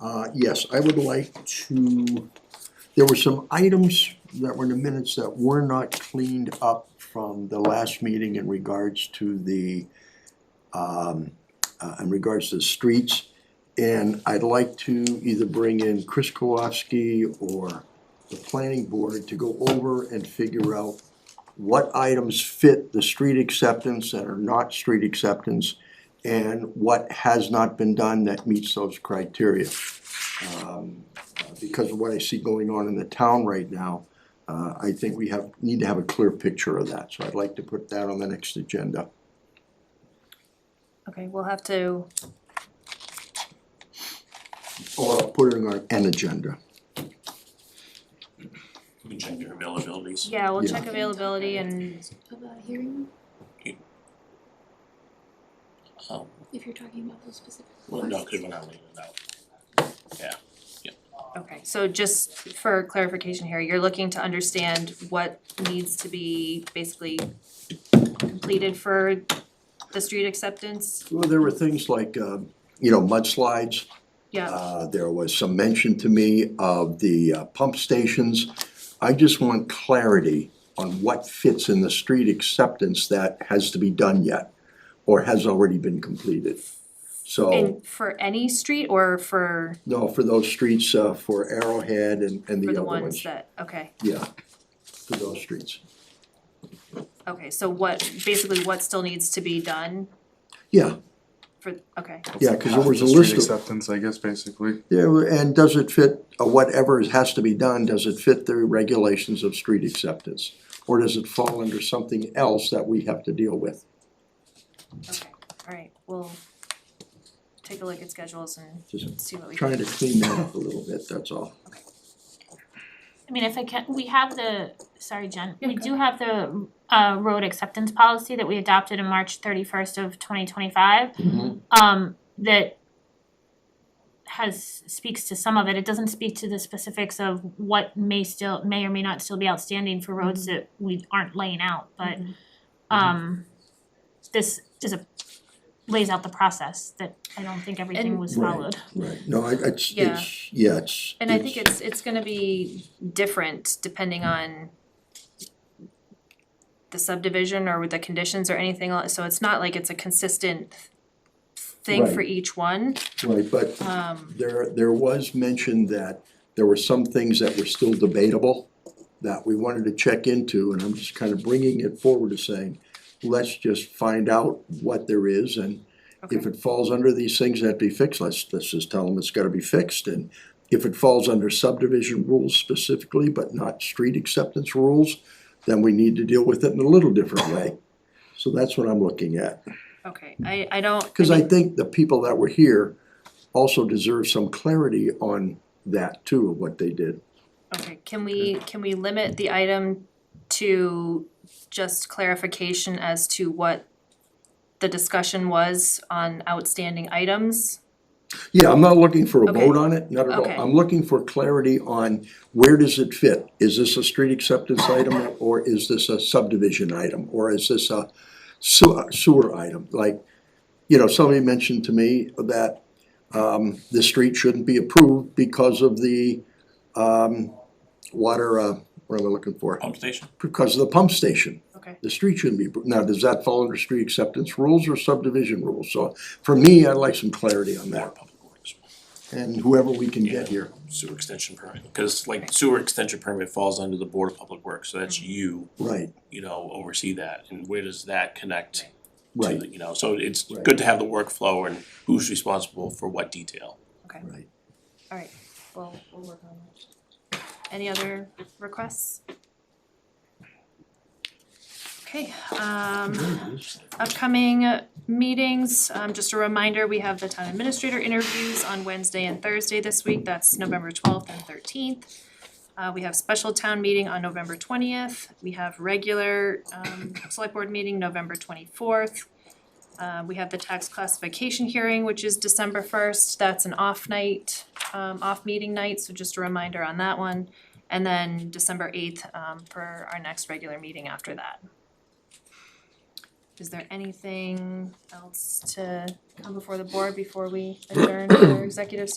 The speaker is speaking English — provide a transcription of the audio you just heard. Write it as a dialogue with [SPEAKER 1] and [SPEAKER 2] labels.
[SPEAKER 1] Uh, yes, I would like to, there were some items that were in the minutes that were not cleaned up from the last meeting in regards to the, um, uh, in regards to the streets. And I'd like to either bring in Chris Kowalski or the planning board to go over and figure out what items fit the street acceptance that are not street acceptance and what has not been done that meets those criteria. Um, uh, Because of what I see going on in the town right now, uh, I think we have, need to have a clear picture of that, so I'd like to put that on the next agenda.
[SPEAKER 2] Okay, we'll have to,
[SPEAKER 1] Or put it on an agenda.
[SPEAKER 3] You can change your availabilities.
[SPEAKER 2] yeah, we'll
[SPEAKER 1] Yeah.
[SPEAKER 2] check availability and,
[SPEAKER 4] About hearing,
[SPEAKER 3] Um,
[SPEAKER 4] if you're talking about those specific
[SPEAKER 3] well, no,
[SPEAKER 4] ones.
[SPEAKER 3] cause we're not leaving it out.
[SPEAKER 2] okay, so just for clarification here, you're looking to understand what needs to be basically completed for the street acceptance?
[SPEAKER 1] Well, there were things like, um, you know, mudslides,
[SPEAKER 2] Yeah,
[SPEAKER 1] Uh, there was some mention to me of the uh, pump stations. I just want clarity on what fits in the street acceptance that has to be done yet or has already been completed. So,
[SPEAKER 2] and for any street or for,
[SPEAKER 1] no, for those streets, uh, for Arrowhead and, and the
[SPEAKER 2] for
[SPEAKER 1] other
[SPEAKER 2] the
[SPEAKER 1] ones.
[SPEAKER 2] ones that, okay,
[SPEAKER 1] Yeah, for those streets.
[SPEAKER 2] okay, so what, basically what still needs to be done
[SPEAKER 1] Yeah,
[SPEAKER 2] for, okay,
[SPEAKER 1] yeah, cause there was a
[SPEAKER 5] Street
[SPEAKER 1] list of,
[SPEAKER 5] Acceptance, I guess, basically.
[SPEAKER 1] yeah, and does it fit, uh, whatever has to be done, does it fit the regulations of street acceptance? Or does it fall under something else that we have to deal with?
[SPEAKER 2] okay, alright, we'll take a look at schedules and
[SPEAKER 1] Just
[SPEAKER 2] see what we can.
[SPEAKER 1] trying to clean that up a little bit, that's all.
[SPEAKER 6] I mean, if I can, we have the, sorry, Jen,
[SPEAKER 2] Yeah,
[SPEAKER 6] we
[SPEAKER 2] go
[SPEAKER 6] do have the uh road acceptance policy that we adopted in March thirty first of twenty twenty five. Um that has speaks to some of it, it doesn't speak to the specifics of what may still, may or may not still be outstanding for roads that we aren't laying out, but
[SPEAKER 2] Mhm.
[SPEAKER 6] um this is a lays out the process that I don't think everything
[SPEAKER 2] And-
[SPEAKER 6] was
[SPEAKER 1] Right.
[SPEAKER 6] followed.
[SPEAKER 1] Right, no, I, it's,
[SPEAKER 2] Yeah.
[SPEAKER 1] it's, yeah, it's.
[SPEAKER 2] And I think it's it's gonna be different depending on the subdivision or with the conditions or anything else, so it's not like it's a consistent thing for each one,
[SPEAKER 1] Right, but
[SPEAKER 2] um,
[SPEAKER 1] there, there was mention that there were some things that were still debatable that we wanted to check into, and I'm just kind of bringing it forward to saying, let's just find out what there is, and if
[SPEAKER 2] okay,
[SPEAKER 1] it falls under these things that have to be fixed, let's, let's just tell them it's gotta be fixed, and if it falls under subdivision rules specifically, but not street acceptance rules, then we need to deal with it in a little different way. So that's what I'm looking at.
[SPEAKER 2] okay, I I don't,
[SPEAKER 1] Because I think the people that were here also deserve some clarity on that too, of what they did.
[SPEAKER 2] okay, can we, can we limit the item to just clarification as to what the discussion was on outstanding items?
[SPEAKER 1] Yeah, I'm not looking for a
[SPEAKER 2] Okay.
[SPEAKER 1] vote on it, not at all.
[SPEAKER 2] Okay.
[SPEAKER 1] I'm looking for clarity on where does it fit? Is this a street acceptance item or is this a subdivision item? Or is this a sewer, sewer item? Like, you know, somebody mentioned to me that um the street shouldn't be approved because of the um water, uh, what am I looking for?
[SPEAKER 3] Pump station?
[SPEAKER 1] Because of the pump station.
[SPEAKER 2] Okay,
[SPEAKER 1] the street shouldn't be, appro- now, does that fall under street acceptance rules or subdivision rules? So for me, I'd like some clarity on
[SPEAKER 3] Or
[SPEAKER 1] that,
[SPEAKER 3] public works,
[SPEAKER 1] and whoever we can get here,
[SPEAKER 3] sewer extension permit, cause like sewer extension permit falls under the Board of Public Works, so that's you,
[SPEAKER 1] right,
[SPEAKER 3] you know, oversee that, and where does that connect to,
[SPEAKER 1] right,
[SPEAKER 3] the- you know, so it's
[SPEAKER 1] Right.
[SPEAKER 3] good to have the workflow and who's responsible for what detail.
[SPEAKER 1] right.
[SPEAKER 2] alright, we'll we'll work on that. Any other requests? Okay, um upcoming meetings, um just a reminder, we have the town administrator interviews on Wednesday and Thursday this week, that's November twelfth and thirteenth. Uh we have special town meeting on November twentieth, we have regular um select board meeting November twenty-fourth. Uh we have the tax classification hearing, which is December first, that's an off night, um off meeting night, so just a reminder on that one. And then December eighth um for our next regular meeting after that. Is there anything else to come before the board before we adjourn for executive